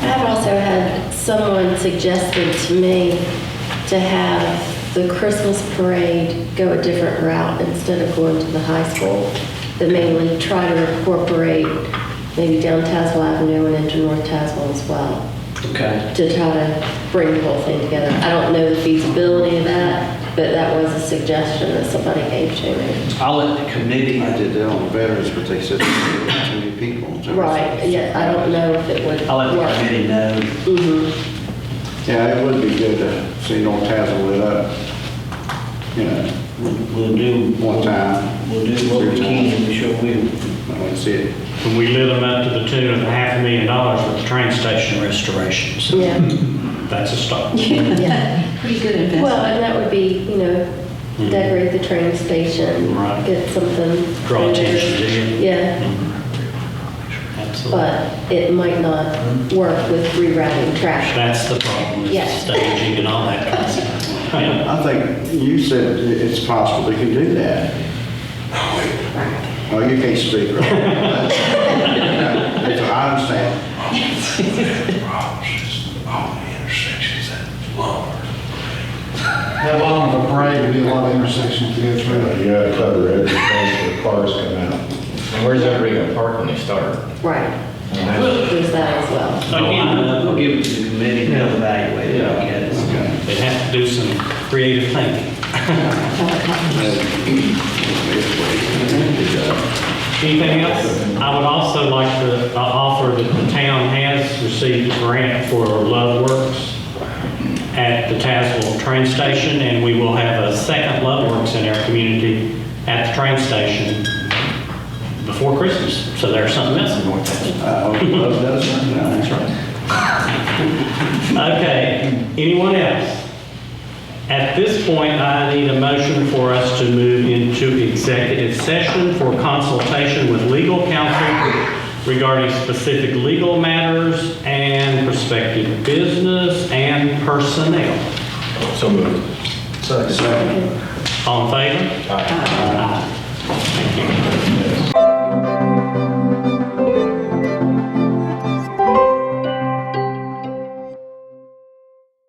had also had someone suggested to me to have the Christmas parade go a different route instead of going to the high school, but mainly try to incorporate maybe down Tazewell Avenue and into North Tazewell as well, Okay. to try to bring the whole thing together. I don't know the feasibility of that, but that was a suggestion that somebody gave to me. I'll let the committee, I did that on veterans, but they said there were too many people. so- Right, yeah, I don't know if it would work. Mm-hmm. I'll let the committee know. Yeah, it would be good to see North Tazewell lit up, you know, We'll do. One time. We'll do what we can, we sure will. I want to see it. And we lit them up to the tune of a half a million dollars with the train station restoration. So Yeah. that's a start. Pretty good investment. Well, and that would be, you know, decorate the train station, Hmm. Right. get something. Draw attention to it. Yeah, Absolutely. but it might not Hmm. work with rerouting traffic. That's the problem, is the Yeah. staging and all that kind of stuff. Yeah. I think you said it- it's possible they can do that. Oh, you can't speak, right? That's what I understand. problems is all the intersections that lumber. That long of a parade, would be a lot of intersections to go through. You gotta cover every place where cars come out. And where's everybody gonna park when they start? Right. There's that as well. No, I know. We'll give it to the committee, they'll evaluate it, I guess. They have to do some creative thinking. Anything else? I would also like to uh, offer that the town has received a grant for Love Works at the Tazewell train station, and we will have a second Love Works in our community at the train station before Christmas. So there's something else in North Tazewell. I hope Uh, oh, it does something. That's right. Okay, anyone else? At this point, I need a motion for us to move into executive session for consultation with legal counsel regarding specific legal matters and prospective business and personnel. So moved. Second. All in favor? Aye.